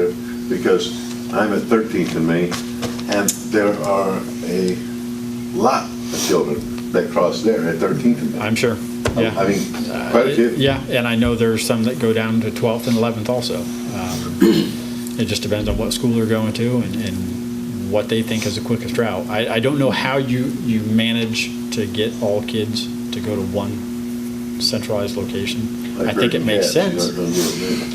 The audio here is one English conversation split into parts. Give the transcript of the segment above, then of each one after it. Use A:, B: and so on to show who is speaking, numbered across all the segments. A: give, because I'm at 13th and Main, and there are a lot of children that cross there at 13th and Main.
B: I'm sure, yeah.
A: I mean, quite a few.
B: Yeah, and I know there's some that go down to 12th and 11th also. Um, It just depends on what school they're going to and, and what they think is the quickest route. I, I don't know how you, you manage to get all kids to go to one centralized location. I
A: I've heard
B: think it makes
A: cats, you
B: sense.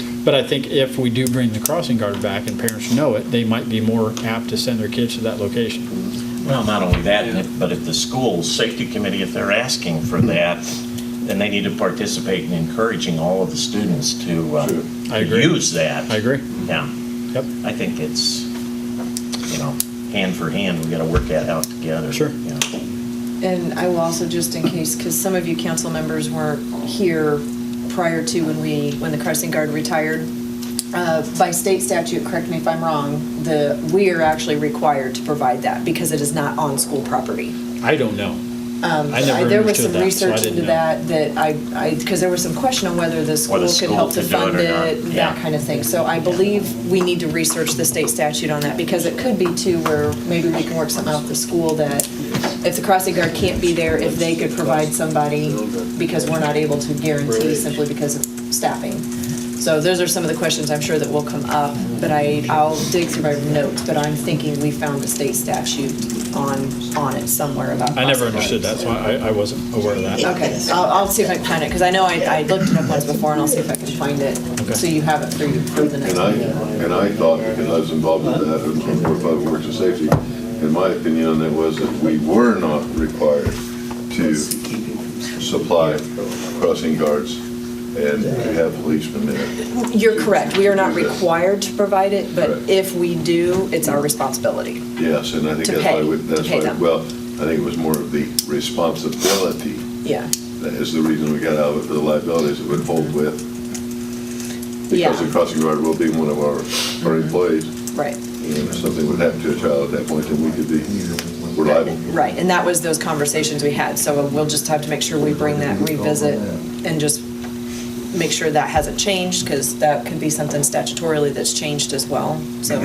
A: don't know,
B: But I think if we do bring the crossing guard back and parents know it, they might be more apt to send their kids to that location.
C: Well, not only that, and if- but if the school safety committee, if they're asking for that, then they need to participate in encouraging all of the students to uh,
A: Sure.
B: I
C: to
B: agree.
C: use that.
B: I agree.
C: Yeah,
B: Yep.
C: I think it's, you know, hand for hand, we got to work that out together.
B: Sure.
C: you know.
D: And I will also, just in case, because some of you council members weren't here prior to when we, when the crossing guard retired, uh, by state statute, correct me if I'm wrong, the, we are actually required to provide that because it is not on school property.
B: I don't know. I
D: Um, I-
B: never
D: There
B: understood
D: was
B: that,
D: some
B: so I
D: research into
B: didn't know.
D: that, that I, I, because there was some question on whether the school could
C: school
D: help to
C: could do it
D: fund
C: or not,
D: it,
C: yeah.
D: that kind of thing. So I believe we need to research the state statute on that, because it could be too where maybe we can work something out with the school that if the crossing guard can't be there, if they could provide somebody, because we're not able to guarantee simply because of staffing. So those are some of the questions I'm sure that will come up, but I, I'll dig through my notes, but I'm thinking we found a state statute on, on it somewhere about.
B: I never
D: crossing guards.
B: understood that, so I, I wasn't aware of that.
D: Okay, I'll, I'll see if I can find it, because I know I, I looked it up once before, and I'll see if I can find it,
B: Okay.
D: so you have it for you for the next
A: And I,
D: one.
A: and I thought, because I was involved in that, and from Board of Public Works and Safety, and my opinion on that was that we were not required to supply crossing guards and to have policemen there.
D: You're correct, we are not required to provide it, but
A: Correct.
D: if we do, it's our responsibility.
A: Yes, and I think
D: To
A: that's why,
D: pay-
A: we-
D: to
A: that's
D: pay
A: why,
D: them.
A: well, I think it was more of the responsibility,
D: Yeah,
A: that is the reason we got out of it, for the liabilities it would hold with.
D: Yeah. Mm-hmm.
A: Because the crossing guard will be one of our, our employees,
D: right,
A: and if something would happen to a child at that point, then we could be, we're liable.
D: right, and that was those conversations we had, so we'll just have to make sure we bring that revisit and just make sure that hasn't changed, because that could be something statutorily that's changed as well, so.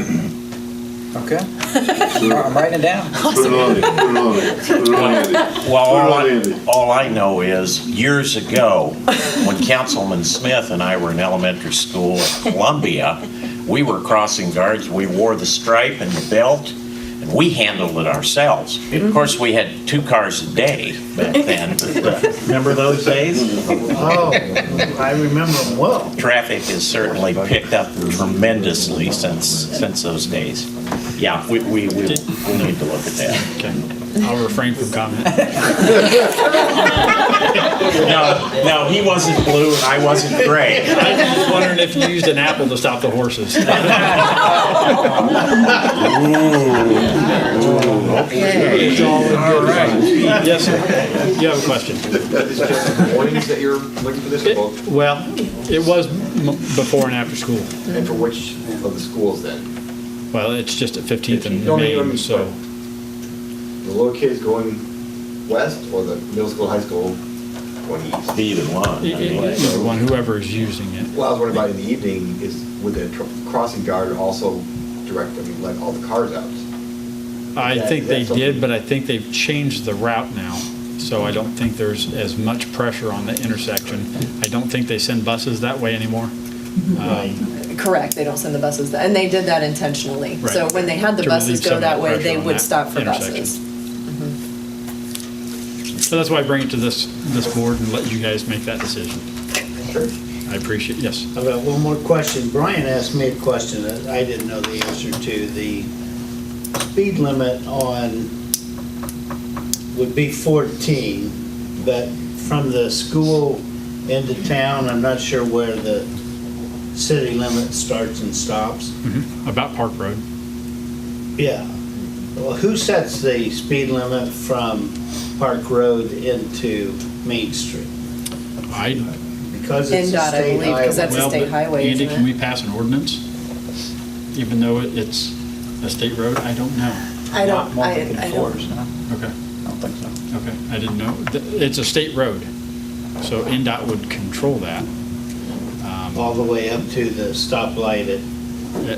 E: Okay. I'm writing it down.
A: Put it on it, put it on it, put it on it.
C: Well, all
A: Put it on Andy.
C: I, all I know is, years ago, when Councilman Smith and I were in elementary school at Columbia, we were crossing guards, we wore the stripe and the belt, and we handled it ourselves. Of course, we had two cars a day back then. but, uh, Remember those days?
E: Oh, I remember them well.
C: Traffic has certainly picked up tremendously since, since those days. Yeah, we, we, we we need to look at that.
B: Okay, I'll refrain from comment.
C: No, no, he wasn't blue and I wasn't gray.
B: I'm just wondering if you used an apple to stop the horses.
F: All right.
B: Yes, sir. You have a question?
F: Is it just mornings that you're looking for this book?
B: It- Well, it was m- before and after school.
F: And for which of the schools then?
B: Well, it's just at 15th and
F: No, no, no,
B: Main, so
F: The little kids going west or the middle school, high school going east?
C: Either one. I
B: e-
C: mean,
B: e- either one, whoever is using it.
F: Well, I was wondering about in the evening is would the tr- crossing guard also direct, I mean, let all the cars out?
B: I
F: Yeah,
B: think they
F: that's okay.
B: did, but I think they've changed the route now. So I don't think there's as much pressure on the intersection. I don't think they send buses that way anymore. Um,
D: Correct, they don't send the buses, and they did that intentionally. So
B: Right.
D: when they had the
B: To relieve
D: buses
B: some
D: go
B: of the
D: that way,
B: pressure
D: they
B: on
D: would
B: that
D: stop for
B: intersection.
D: buses.
B: So that's why I bring it to this, this board and let you guys make that decision.
F: Sure.
B: I appreciate, yes.
G: I've got one more question. Brian asked me a question that I didn't know the answer to. The speed limit on, would be 14, but from the school into town, I'm not sure where the city limit starts and stops.
B: About Park Road.
G: Yeah. Well, who sets the speed limit from Park Road into Main Street?
B: I
G: Because it's a
D: NDOT, I
G: state
D: believe, 'cause
G: highway.
D: that's a
B: Well,
D: state
B: but
D: highway,
B: Andy,
D: isn't
B: can
D: it?
B: we pass an ordinance? Even though it- it's a state road? I don't know.
D: I
E: Not
D: don't,
E: one
D: I,
E: they can
D: I don't,
E: enforce, no?
B: Okay,
E: I don't think so.
B: okay, I didn't know. Th- It's a state road, so NDOT would control that.
G: All the way up to the stoplight at